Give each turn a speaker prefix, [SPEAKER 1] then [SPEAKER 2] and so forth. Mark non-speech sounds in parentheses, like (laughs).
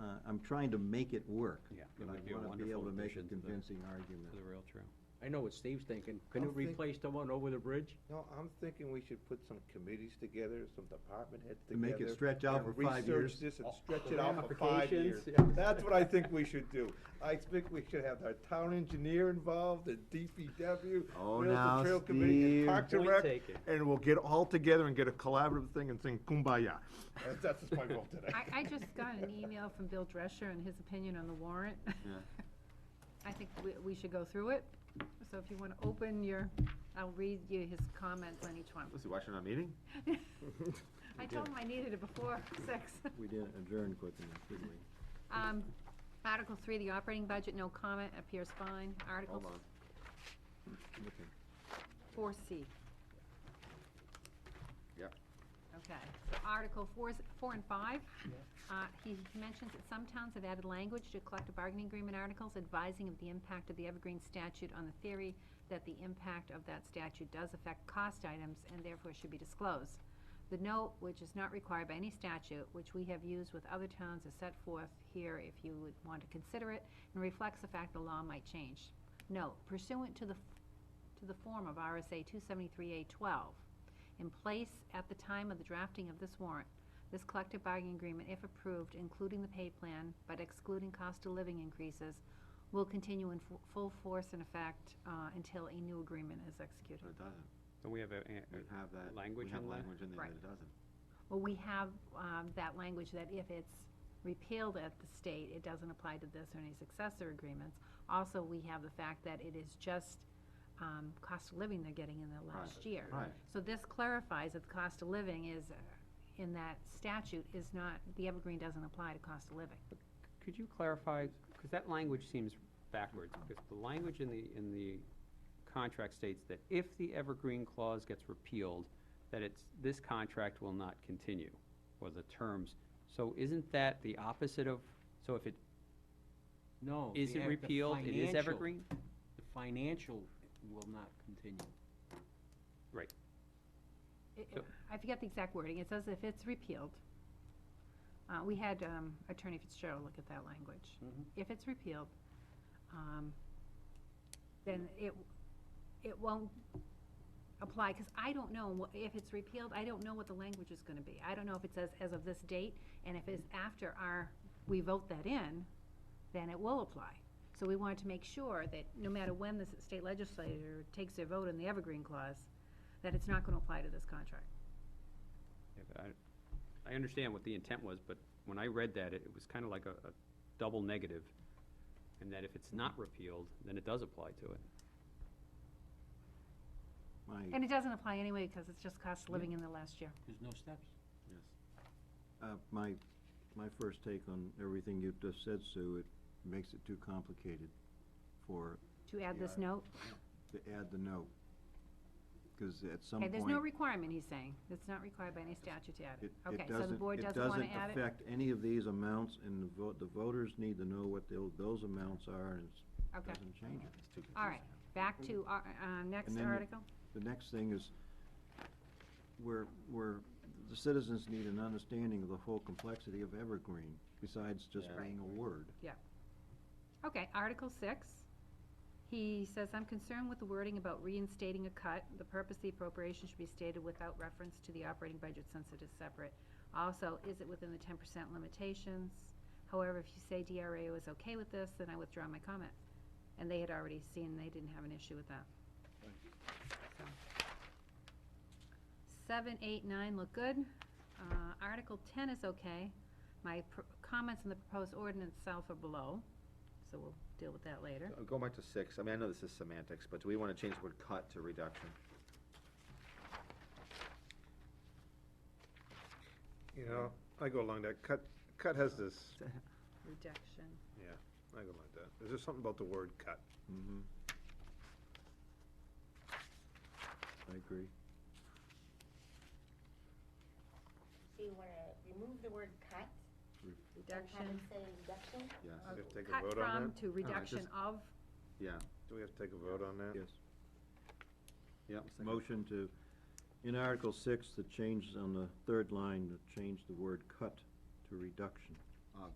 [SPEAKER 1] Uh, I'm trying to make it work.
[SPEAKER 2] Yeah, it
[SPEAKER 1] But
[SPEAKER 2] would be
[SPEAKER 1] I
[SPEAKER 2] a
[SPEAKER 1] wanna be able to
[SPEAKER 2] wonderful
[SPEAKER 1] make a
[SPEAKER 2] addition to the-
[SPEAKER 1] convincing argument.
[SPEAKER 2] to the rail trail.
[SPEAKER 3] I know what Steve's thinking. Can
[SPEAKER 4] I'll
[SPEAKER 3] you
[SPEAKER 4] think-
[SPEAKER 3] replace the one over the bridge?
[SPEAKER 4] No, I'm thinking we should put some committees together, some department heads
[SPEAKER 1] To
[SPEAKER 4] together.
[SPEAKER 1] make it stretch out
[SPEAKER 4] and
[SPEAKER 1] for five years.
[SPEAKER 4] Research this and
[SPEAKER 3] Oh,
[SPEAKER 4] stretch
[SPEAKER 3] the
[SPEAKER 4] it out for five years.
[SPEAKER 3] ramifications, yeah.
[SPEAKER 4] That's what I think we should do. I think we should have our town engineer involved, the DPW,
[SPEAKER 1] Oh,
[SPEAKER 4] Rails
[SPEAKER 1] now,
[SPEAKER 4] and Trail Committee,
[SPEAKER 1] Steve.
[SPEAKER 4] and Parks and
[SPEAKER 3] Point
[SPEAKER 4] Rec.
[SPEAKER 3] taken.
[SPEAKER 4] And we'll get all together and get a collaborative thing and sing kumbaya. That's, that's just my goal today.
[SPEAKER 5] I, I just got an email from Bill Drescher and his opinion on the warrant. (laughs) I think we, we should go through it, so if you wanna open your, I'll read you his comments
[SPEAKER 6] (laughs)
[SPEAKER 5] on each one.
[SPEAKER 6] Was he watching our meeting?
[SPEAKER 5] I told him I needed it before (laughs) six.
[SPEAKER 1] We didn't adjourn quick enough, did we?
[SPEAKER 5] Um, Article three, the operating budget, no comment, appears fine. Article
[SPEAKER 6] Hold on.
[SPEAKER 1] Okay.
[SPEAKER 5] four C,
[SPEAKER 6] Yep.
[SPEAKER 5] okay. Article four, four and five, uh, he mentions that some towns have added language to collective bargaining agreement articles advising of the impact of the Evergreen statute on the theory that the impact of that statute does affect cost items and therefore should be disclosed. The note, which is not required by any statute, which we have used with other towns, is set forth here if you would want to consider it, and reflects the fact the law might change. Note, pursuant to the, f- to the form of RSA two seventy-three A twelve, in place at the time of the drafting of this warrant, this collective bargaining agreement, if approved, including the pay plan, but excluding cost of living increases, will continue in fu- full force and effect uh, until a new agreement is executed.
[SPEAKER 6] No, it doesn't.
[SPEAKER 2] Don't we have a, a-
[SPEAKER 6] We
[SPEAKER 2] a-
[SPEAKER 6] have that.
[SPEAKER 2] language
[SPEAKER 6] We have
[SPEAKER 2] in there?
[SPEAKER 6] language in there
[SPEAKER 5] Right.
[SPEAKER 6] that it doesn't.
[SPEAKER 5] Well, we have um, that language that if it's repealed at the state, it doesn't apply to this or any successor agreements. Also, we have the fact that it is just um, cost of living they're getting in the last
[SPEAKER 6] Right,
[SPEAKER 5] year.
[SPEAKER 6] right.
[SPEAKER 5] So this clarifies that the cost of living is, uh, in that statute, is not, the evergreen doesn't apply to cost of living.
[SPEAKER 2] could you clarify, because that language seems backwards, because the language in the, in the contract states that if the evergreen clause gets repealed, that it's, this contract will not continue, or the terms. So isn't that the opposite of, so if it
[SPEAKER 3] No. the
[SPEAKER 2] isn't
[SPEAKER 3] ev- the
[SPEAKER 2] repealed, it is
[SPEAKER 3] financial-
[SPEAKER 2] evergreen?
[SPEAKER 3] The financial will not continue.
[SPEAKER 2] Right.
[SPEAKER 5] It-
[SPEAKER 2] So-
[SPEAKER 5] I forget the exact wording, it says if it's repealed, uh, we had um, Attorney Fitzgerald look at that language.
[SPEAKER 3] Mhm.
[SPEAKER 5] If it's repealed, um, then it, it won't apply, because I don't know, wha- if it's repealed, I don't know what the language is gonna be. I don't know if it says as of this date, and if it's after our, we vote that in, then it will apply. So we wanted to make sure that no matter when the s- state legislature takes their vote in the Evergreen Clause, that it's not gonna apply to this contract.
[SPEAKER 2] Yeah, but I, I understand what the intent was, but when I read that, it it was kind of like a, a double negative, and that if it's not repealed, then it does apply to it.
[SPEAKER 1] My,
[SPEAKER 5] And it doesn't apply anyway, because it's just cost of living in the last year.
[SPEAKER 3] There's no steps.
[SPEAKER 6] Yes.
[SPEAKER 1] uh, my, my first take on everything you just said, Sue, it makes it too complicated for,
[SPEAKER 5] To add this
[SPEAKER 1] Yeah.
[SPEAKER 5] note,
[SPEAKER 1] to add the note. Cause at some
[SPEAKER 5] okay,
[SPEAKER 1] point.
[SPEAKER 5] there's no requirement, he's saying, it's not required by any statute to add
[SPEAKER 1] It-
[SPEAKER 5] it.
[SPEAKER 1] it
[SPEAKER 5] Okay, so the board doesn't want to add
[SPEAKER 1] It
[SPEAKER 5] it?
[SPEAKER 1] doesn't affect any of these amounts, and the vote, the voters need to know what tho- those amounts are, and it
[SPEAKER 5] Okay,
[SPEAKER 1] doesn't change it.
[SPEAKER 6] It's too confusing.
[SPEAKER 5] all right, back to, our- uh, next
[SPEAKER 1] And then the-
[SPEAKER 5] article?
[SPEAKER 1] The next thing is, where, where the citizens need an understanding of the whole complexity of Evergreen, besides just
[SPEAKER 6] Yeah.
[SPEAKER 1] being a word.
[SPEAKER 5] Okay, Article six. He says, I'm concerned with the wording about reinstating a cut. The purpose of the appropriation should be stated without reference to the operating budget since it is separate. Also, is it within the ten percent limitations? However, if you say DRA is okay with this, then I withdraw my comment. And they had already seen, they didn't have an issue with that. So. Seven, eight, nine look good. Uh, Article ten is okay. My pr- comments on the proposed ordinance itself are below, so we'll deal with that later.
[SPEAKER 6] Uh, Going back to six, I mean, I know this is semantics, but do we want to change the word cut to reduction?
[SPEAKER 4] You know, I go along that, cut, cut has this,
[SPEAKER 5] Reduction.
[SPEAKER 4] yeah, I go like that. Is there something about the word cut?
[SPEAKER 1] Mm-hmm. I agree.
[SPEAKER 7] So you wanna remove the word cut and have
[SPEAKER 5] Reduction.
[SPEAKER 7] it say reduction?
[SPEAKER 6] Yes.
[SPEAKER 5] of-
[SPEAKER 4] Just take a
[SPEAKER 5] Cut
[SPEAKER 4] vote on
[SPEAKER 5] from
[SPEAKER 4] that?
[SPEAKER 5] to reduction
[SPEAKER 6] just-
[SPEAKER 5] of,
[SPEAKER 6] Yeah,
[SPEAKER 4] Do we have to take a vote on that?
[SPEAKER 1] Yes.
[SPEAKER 6] yep.
[SPEAKER 1] Motion to, in Article six, the change on the third line, to change the word cut to reduction.
[SPEAKER 6] Uh,